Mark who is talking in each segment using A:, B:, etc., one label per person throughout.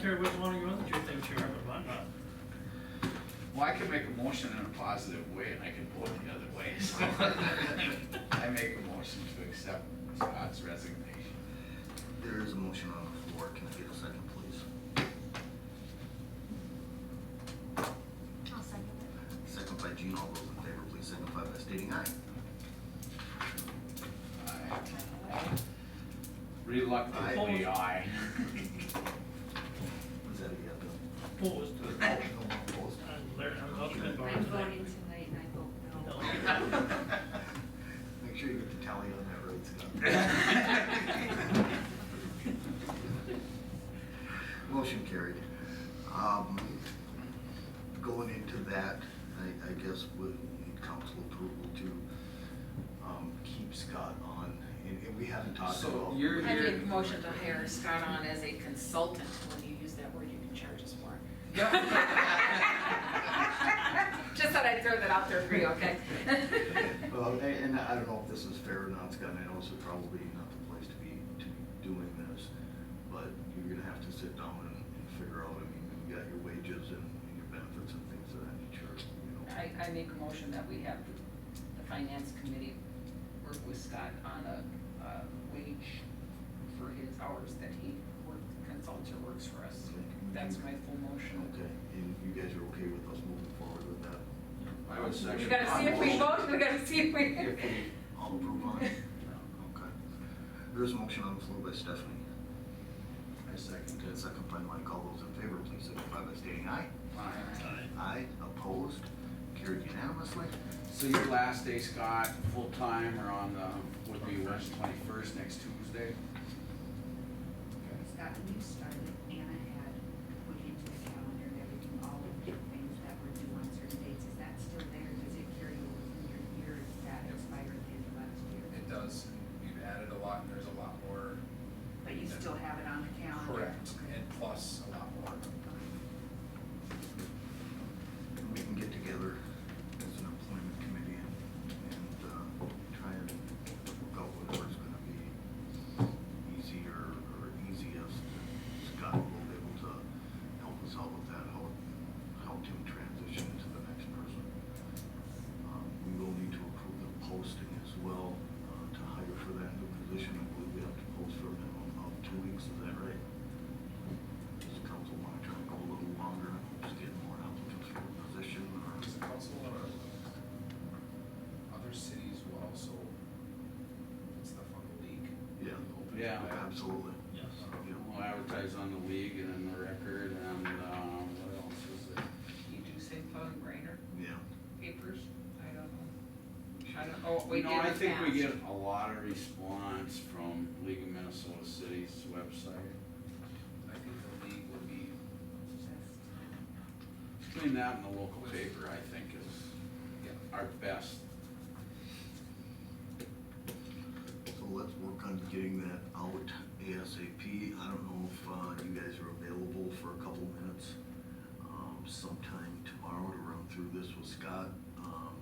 A: sure which one of your other two things you are, but mine not.
B: Well, I can make a motion in a positive way and I can vote the other way, so. I make a motion to accept Scott's resignation.
C: There is a motion on the floor, can I get a second, please?
D: I'll second it.
C: Second by Gene, all those in favor, please signify by stating aye.
B: Aye. Reluctantly, aye.
C: Is that a yeah, Bill?
A: Opposed.
C: No, opposed?
A: And Larry, I'm not gonna borrow
E: I'm voting
A: that.
E: tonight and I vote no.
C: Make sure you get the tally on that right, Scott. Motion carried. Um, Going into that, I, I guess we need council approval to um, keep Scott on, and and we haven't talked
B: So
C: about.
B: you're-
F: I make a motion to hire Scott on as a consultant, when you use that word, you can charge us more. Just thought I'd throw that out there for you, okay?
C: Well, a- and I don't know if this is fair or not, Scott, and I know this is probably not the place to be, to be doing this, but you're gonna have to sit down and, and figure out, I mean, you got your wages and, and your benefits and things of that nature, you know.
F: I, I make a motion that we have the finance committee work with Scott on a, uh wage for his hours that he work, consults or works for us. That's my full motion.
C: Okay, and you guys are okay with us moving forward with that?
B: I would second.
F: We gotta see if we vote, we gotta see if we.
B: If we-
C: All approve on it? Okay. There's a motion on the floor by Stephanie.
B: I second
C: Okay, second by Mike, all those in favor, please signify by stating aye.
B: Aye.
A: Aye.
C: Aye, opposed, carried unanimously.
B: So your last day, Scott, full-time or on the, would be March twenty-first, next Tuesday?
E: Scott, when you started, Anna had put into the calendar and everything, all of the things that were due on certain dates. Is that still there? Does it carry over from your year? Is that expired at the end of last year?
G: It does, we've added a lot, and there's a lot more.
E: But you still have it on the calendar?
G: Correct,
E: Okay.
G: and plus a lot more.
C: And we can get together as an employment committee and, and, uh, try and work out whether it's gonna be easier or easiest. Scott will be able to help us out with that, help, help him transition to the next person. Um, we will need to approve the posting as well, uh, to hire for that new position, I believe we have to post for a minimum of two weeks, is that right? Does the council wanna try and go a little longer, and just get more applicants for the position, or?
G: Does the council or other cities will also put stuff on the league?
C: Yeah.
G: Open to
B: Yeah.
G: that.
C: Absolutely. Uh,
A: Yes.
C: Yeah.
B: We'll advertise on the league and on the record and, um, what else is it?
F: You do say phone brainer,
C: Yeah.
F: papers, I don't know. I don't, oh, we did
B: No,
F: in
B: I think we
F: the
B: get a lot of response from League of Minnesota Cities website.
G: I think the league would be,
B: Between that and the local paper, I think is
G: yeah,
B: our best.
C: So let's work on getting that out ASAP. I don't know if, uh, you guys are available for a couple minutes, um, sometime tomorrow to run through this with Scott. Um,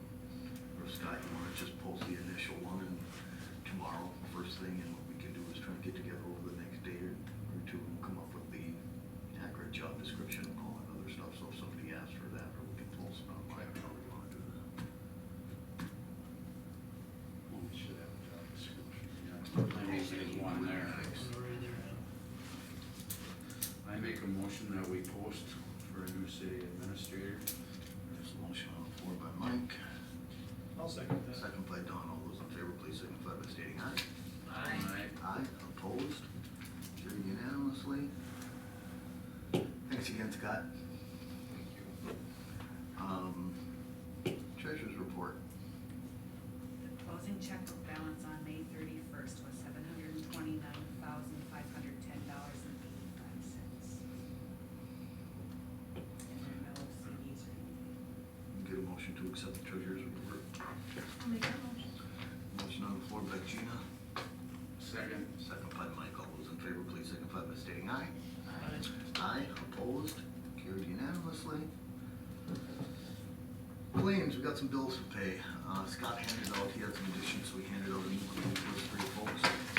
C: or Scott, you wanna just post the initial one and tomorrow, first thing, and what we can do is try and get together over the next day or or two and come up with the accurate job description and all that other stuff. So if somebody asks for that, or we can post it online, or we wanna do that.
B: Well, we should have a job description. Yeah, I think there's one there.
A: Right there,
B: I make a motion that we post for a new city administrator.
C: There's a motion on the floor by Mike,
A: yeah. I'll second that.
C: second by Don. All those in favor, please signify by stating aye.
F: Aye.
C: Aye, opposed, carried unanimously. Thanks again, Scott.
G: thank you.
C: Um, Treasurer's report.
E: The closing checkbook balance on May thirty-first was seven hundred and twenty-nine thousand, five hundred ten dollars and eighty-five cents. And there are no CDs or anything.
C: Get a motion to accept the treasurer's report.
D: I'll make that motion.
C: Motion on the floor by Gina,
B: Second.
C: second by Mike. All those in favor, please signify by stating aye.
A: Aye.
C: Aye, opposed, carried unanimously. Claims, we got some bills to pay. Uh, Scott handed out, he had some additions, so he handed out a new claim list for you folks.